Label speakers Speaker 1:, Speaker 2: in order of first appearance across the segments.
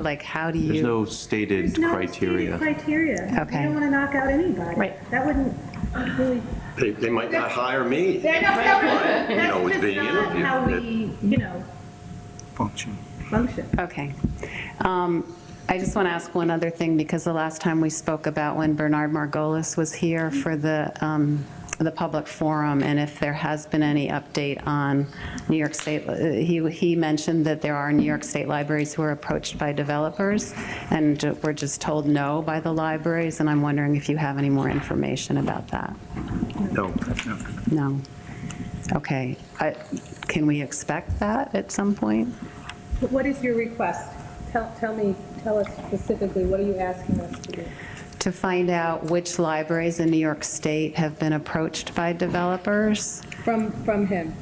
Speaker 1: like, how do
Speaker 2: There's
Speaker 1: you?
Speaker 2: no stated
Speaker 3: There's no stated
Speaker 2: criteria.
Speaker 3: Criteria.
Speaker 1: Okay.
Speaker 3: You don't want to knock out anybody.
Speaker 1: Right.
Speaker 3: That wouldn't really.
Speaker 4: They, they might not hire me.
Speaker 3: They're not, that would-
Speaker 4: know, with
Speaker 3: that's just
Speaker 4: being
Speaker 3: not
Speaker 4: interviewed,
Speaker 3: how
Speaker 4: that-
Speaker 3: we, you know,
Speaker 5: function.
Speaker 3: function.
Speaker 1: Okay. Um, I just want to ask one other thing, because the last time we spoke about when Bernard Margolis was here for the, um, the public forum, and if there has been any update on New York State, uh, he, he mentioned that there are New York State libraries who are approached by developers, and ju- we're just told no by the libraries, and I'm wondering if you have any more information about that?
Speaker 4: No.
Speaker 1: No? Okay. I- Can we expect that at some point?
Speaker 6: But What is your request? Tell, tell me, tell us specifically, what are you asking us to do?
Speaker 1: to find out which libraries in New York State have been approached by developers.
Speaker 6: From, from him?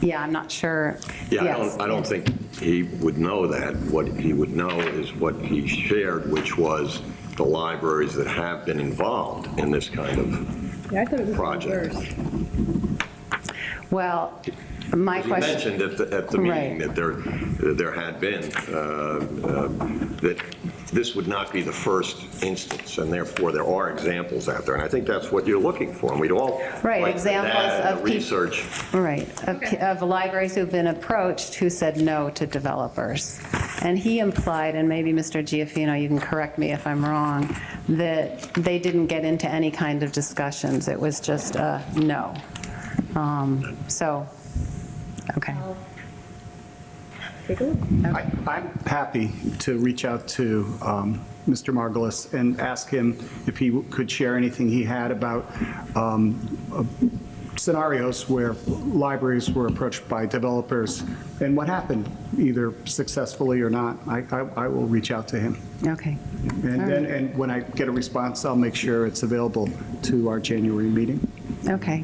Speaker 1: Yeah, I'm not sure.
Speaker 4: Yeah, I
Speaker 1: Yes.
Speaker 4: don't, I don't think he would know that. What he would know is what he shared, which was the libraries that have been involved in this kind of
Speaker 6: Yeah, I thought it was
Speaker 4: project.
Speaker 6: reversed.
Speaker 1: Well, my
Speaker 4: He
Speaker 1: question,
Speaker 4: mentioned at the, at the
Speaker 1: Right.
Speaker 4: meeting that there, there had been, uh, uh, that this would not be the first instance, and therefore there are examples out there. And I think that's what you're looking for, and we'd all
Speaker 1: Right,
Speaker 4: like the data
Speaker 1: examples
Speaker 4: and the
Speaker 1: of peop-
Speaker 4: Research.
Speaker 1: right, of- of libraries who've been approached who said no to developers. And he implied, and maybe Mr. Giaffino, you can correct me if I'm wrong, that they didn't get into any kind of discussions. It was just a no. Um, So, okay.
Speaker 6: Take a look.
Speaker 5: I- I'm happy to reach out to um, Mr. Margolis and ask him if he could share anything he had about um, uh, scenarios where libraries were approached by developers and what happened, either successfully or not. I- I I will reach out to him.
Speaker 1: Okay. All
Speaker 5: And then, and when I get a response, I'll make sure it's available to our January meeting.
Speaker 1: Okay.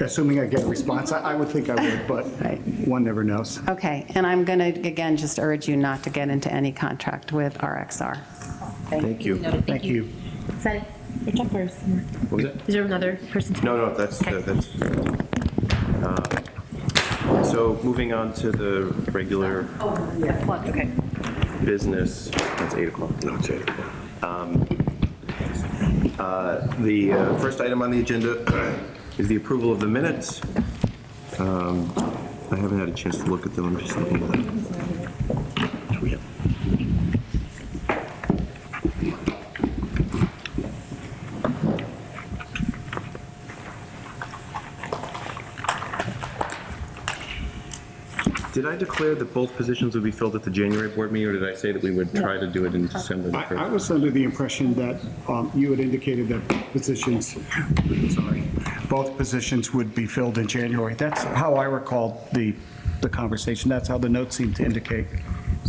Speaker 5: Assuming I get a response, I I would think I would, but
Speaker 1: Right.
Speaker 5: one never knows.
Speaker 1: Okay, and I'm going to, again, just urge you not to get into any contract with RXR.
Speaker 2: Thank you.
Speaker 5: Thank you.
Speaker 7: Is that it? You're up first.
Speaker 2: What was that?
Speaker 7: Is there another person?
Speaker 2: No, no, that's,
Speaker 7: Okay.
Speaker 2: that's. uh, So moving on to the regular
Speaker 7: Okay.
Speaker 2: business, that's 8 o'clock.
Speaker 4: No, it's eight.
Speaker 2: The uh, first item on the agenda is the approval of the minutes. Um, I haven't had a chance to look at them, I'm just looking at them. Did I declare that both positions would be filled at the January board meeting, or did I say that we would try to do it in December? the
Speaker 5: I I
Speaker 2: first?
Speaker 5: was under the impression that um, you had indicated that positions, sorry, both positions would be filled in January. That's how I recalled the, the conversation. That's how the notes seemed to indicate.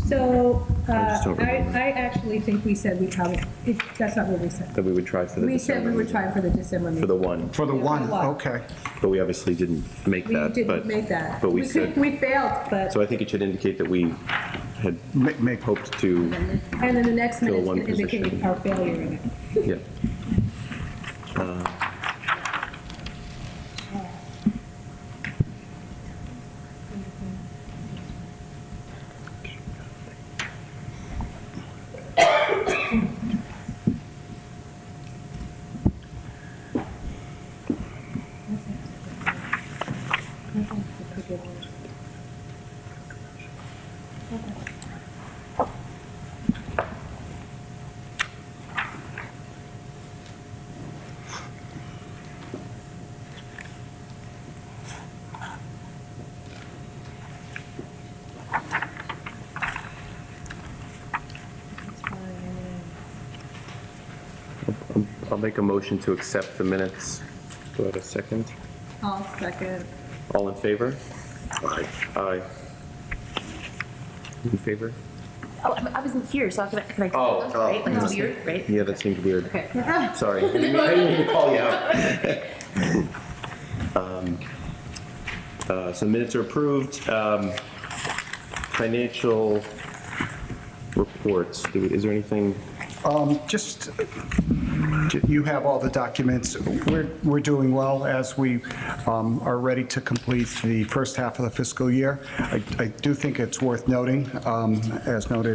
Speaker 6: So, uh,
Speaker 2: just don't
Speaker 6: I,
Speaker 2: remember.
Speaker 6: I actually think we said we probably, it- that's not what we said.
Speaker 2: That we would try for the
Speaker 6: We said
Speaker 2: December,
Speaker 6: we were
Speaker 2: meeting,
Speaker 6: trying for the December
Speaker 2: for the
Speaker 6: meeting.
Speaker 2: one.
Speaker 5: For the
Speaker 6: Yeah, for
Speaker 5: one,
Speaker 6: one.
Speaker 5: okay.
Speaker 2: But we obviously didn't make
Speaker 6: We
Speaker 2: that.
Speaker 6: didn't
Speaker 2: but-
Speaker 6: make that.
Speaker 2: But we
Speaker 6: could-
Speaker 2: said,
Speaker 6: We failed, but,
Speaker 2: so I think it should indicate that we had
Speaker 5: Ma- Make,
Speaker 2: hoped to,
Speaker 6: and then the next
Speaker 2: Fill
Speaker 6: minute's
Speaker 2: one
Speaker 6: going to indicate
Speaker 2: position.
Speaker 6: our failure in it.
Speaker 2: yeah. I'll make a motion to accept the minutes. Do I have a second?
Speaker 6: I'll second.
Speaker 2: All in favor?
Speaker 4: Aye.
Speaker 2: Aye. In favor?
Speaker 7: Oh, I I wasn't here, so I can, can I?
Speaker 2: Oh,
Speaker 7: Right?
Speaker 2: oh,
Speaker 7: Like, it's weird, right?
Speaker 2: Yeah, that seemed weird.
Speaker 7: Okay.
Speaker 2: Sorry, I didn't mean- I didn't mean to call you out. Um, uh, So minutes are approved. Um, Financial reports, Do we- is there anything?
Speaker 5: um, just, you have all the documents. We're, we're doing well as we um, are ready to complete the first half of the fiscal year. I I do think it's worth noting, um, as noted